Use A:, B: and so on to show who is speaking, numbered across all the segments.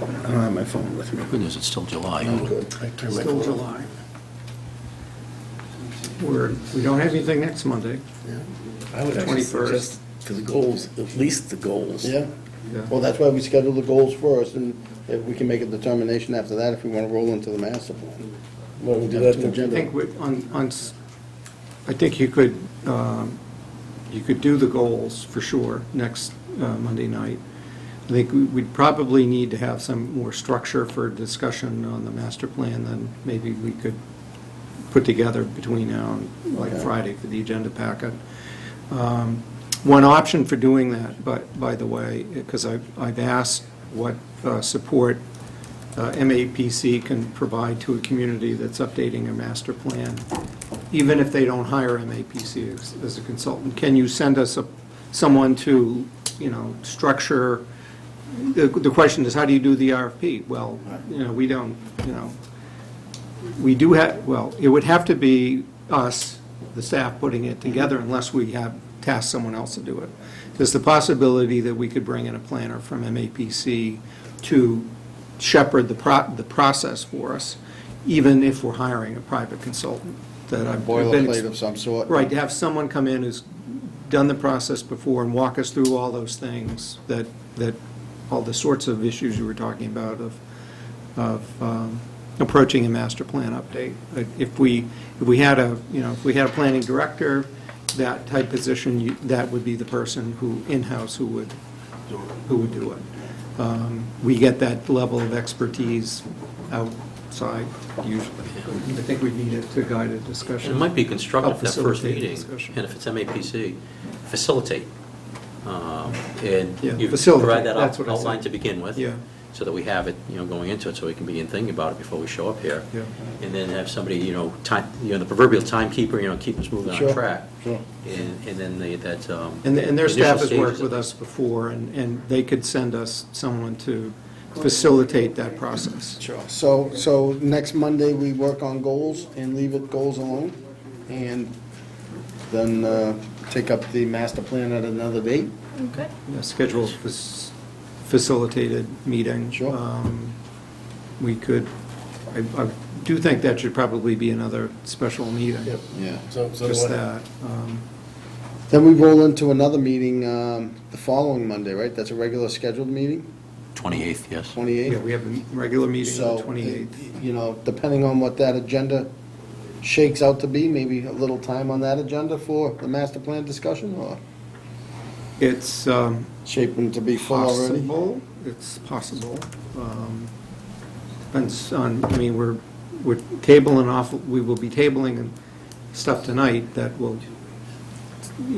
A: I don't have my phone with me.
B: Good news, it's still July.
A: I'm good. I turned my
C: Still
A: phone off.
C: July. We're, we don't have anything next Monday.
D: I would actually
C: 21st.
D: suggest for the goals, at least the goals.
A: Yeah,
C: Yeah.
A: well, that's why we schedule the goals first, and if we can make a determination after that if we want to roll into the master plan.
D: Why don't we do
A: Have
D: that
A: two
D: then?
C: I think
A: agenda.
C: we- on, on, s- I think you could, um, you could do the goals for sure next uh, Monday night. I think we- we'd probably need to have some more structure for discussion on the master plan than maybe we could put together between now and like
A: Okay.
C: Friday for the agenda packet. Um, One option for doing that, but, by the way, because I've, I've asked what uh, support uh, MAPC can provide to a community that's updating a master plan, even if they don't hire MAPC as- as a consultant. Can you send us a- someone to, you know, structure, the the question is, how do you do the RFP? Well, you know, we don't, you know, we do have, well, it would have to be us, the staff, putting it together unless we have tasked someone else to do it. There's the possibility that we could bring in a planner from MAPC to shepherd the pro, the process for us, even if we're hiring a private consultant that I've been. ex-
A: Boilerplate of some sort.
C: Right, to have someone come in who's done the process before and walk us through all those things that, that, all the sorts of issues you were talking about of, of um, approaching a master plan update. Like, If we, if we had a, you know, if we had a planning director, that type position, you- that would be the person who, in-house, who would, who would do it. Um, We get that level of expertise outside usually. I think we need it to guide a discussion.
B: It might be constructive,
C: Help
B: that first
C: facilitate the
B: meeting,
C: discussion.
B: and if it's MAPC, facilitate. Um, And
C: Yeah,
B: you
C: facilitate,
B: provide that
C: that's
B: out-
C: what I said.
B: outline to begin with.
C: Yeah.
B: So that we have it, you know, going into it, so we can begin thinking about it before we show up here.
C: Yeah.
B: And then have somebody, you know, time, you know, the proverbial timekeeper, you know, keep us moving
A: Sure,
B: on track.
A: sure.
B: And, and then they, that, um.
C: And th- and their
B: initial
C: staff has
B: stages
C: worked
B: of
C: with
B: it.
C: us before, and and they could send us someone to facilitate that process.
A: Sure. So, so next Monday, we work on goals and leave it goals alone, and then uh, take up the master plan at another date?
E: Okay.
C: Yeah, Schedule a fac- facilitated meeting.
A: Sure.
C: Um, We could, I I do think that should probably be another special meeting.
D: Yep.
A: Yeah.
D: So, so
C: Just
D: do I.
C: that. um,
A: Then we roll into another meeting um, the following Monday, right? That's a regular scheduled meeting,
B: 28th, yes.
A: 28th?
C: Yeah, we have a regular meeting on the
A: So, uh,
C: 28th.
A: you know, depending on what that agenda shakes out to be, maybe a little time on that agenda for the master plan discussion, or
C: It's um,
A: shaping to be full already?
C: possible, it's possible. Um, Depends on, I mean, we're, we're tabling off, we will be tabling and stuff tonight that will,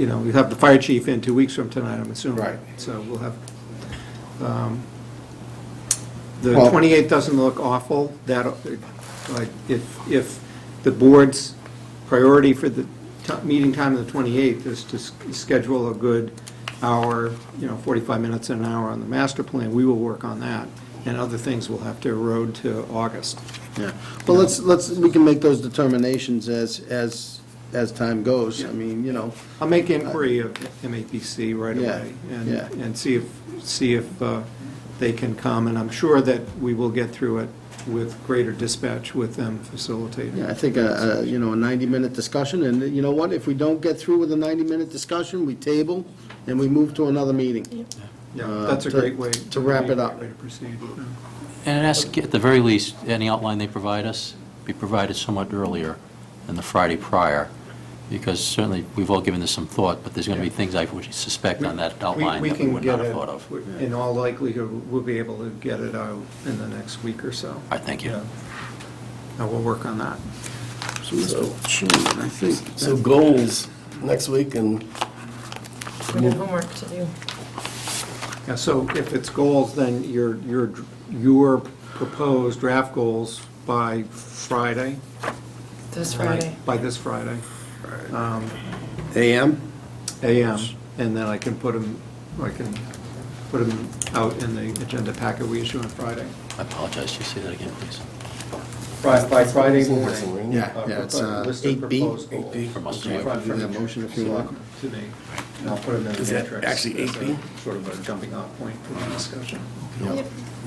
C: you know, we have the fire chief in two weeks from tonight, I'm assuming.
A: Right.
C: So we'll have, um, the
A: Well-
C: 28th doesn't look awful, that, like, if, if the board's priority for the ti- meeting time of the 28th is to s- schedule a good hour, you know, 45 minutes and an hour on the master plan, we will work on that, and other things will have to erode to August.
A: Yeah, well, let's, let's, we can make those determinations as, as, as time goes. I
C: Yeah.
A: mean, you know,
C: I'll make inquiry of MAPC right
A: Yeah,
C: away and,
A: yeah.
C: and see if, see if uh, they can come. And I'm sure that we will get through it with greater dispatch with them facilitating.
A: yeah, I think, a- a, you know, a 90-minute discussion, and you know what? If we don't get through with a 90-minute discussion, we table and we move to another meeting.
C: Yeah,
A: uh,
C: that's a
A: to-
C: great way.
A: to wrap it up.
C: Way to proceed.
B: And ask, at the very least, any outline they provide us be provided somewhat earlier than the Friday prior, because certainly, we've all given this some thought, but there's going to be things I would suspect on that outline
C: We- we
B: that we
C: can
B: would not
C: get
B: have
C: it-
B: thought of. All
C: In all likelihood, we'll be able to get it out in the next week or so.
B: right, thank you.
C: And we'll work on that.
D: So-
A: Chairman, I think.
D: So goals next week and
E: We have homework to do.
C: Yeah, so if it's goals, then your, your, your proposed draft goals by Friday?
E: This Friday.
C: By this Friday,
A: AM?
C: AM, and then I can put them, I can put them out in the agenda packet we issue on Friday.
B: I apologize, Just say that again, please?
C: By, by Friday morning.
D: morning.
A: Yeah, yeah, it's, uh,
C: List of
A: 8B.
C: proposed goals.
D: 8B.
B: From us.
C: From-
A: You can do that
C: from-
A: motion if you want.
C: To me, and I'll put them in the
D: Is that
C: matrix.
D: actually
C: as a
D: 8B?
C: Sort of a jumping off point for the discussion.
E: Yep.